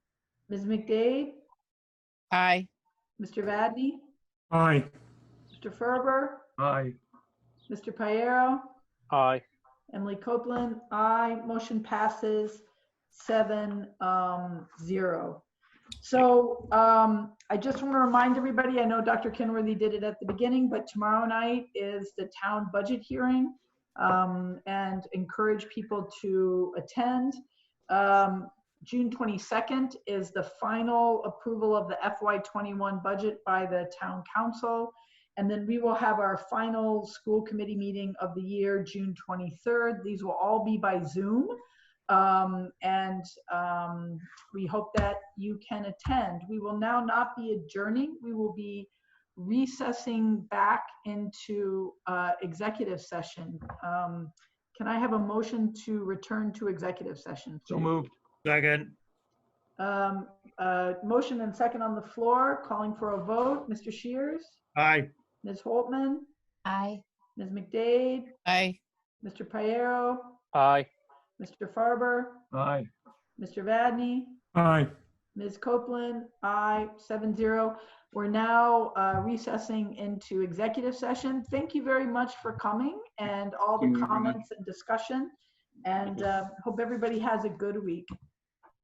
Ms. McDade, Aye. Mr. Vadney, Aye. Mr. Ferber, Aye. Mr. Piero, Aye. Emily Copeland, aye. Motion passes seven, um, zero. So, um, I just want to remind everybody, I know Dr. Kenworthy did it at the beginning, but tomorrow night is the town budget hearing. Um, and encourage people to attend. Um, June twenty-second is the final approval of the FY twenty-one budget by the town council. And then we will have our final school committee meeting of the year, June 23rd. These will all be by Zoom. Um, and um, we hope that you can attend. We will now not be adjourning. We will be recessing back into uh, executive session. Um, can I have a motion to return to executive session? So please? moved. Second. Um, uh, motion and second on the floor, calling for a vote. Mr. Shears, Aye. Ms. Holtman, Aye. Ms. McDade, Aye. Mr. Piero, Aye. Mr. Farber, Aye. Mr. Vadney, Aye. Ms. Copeland, aye, seven zero. We're now uh, recessing into executive session. Thank you very much for coming and all Thank the you very much. comments and discussion. And uh, hope everybody um, has a good week.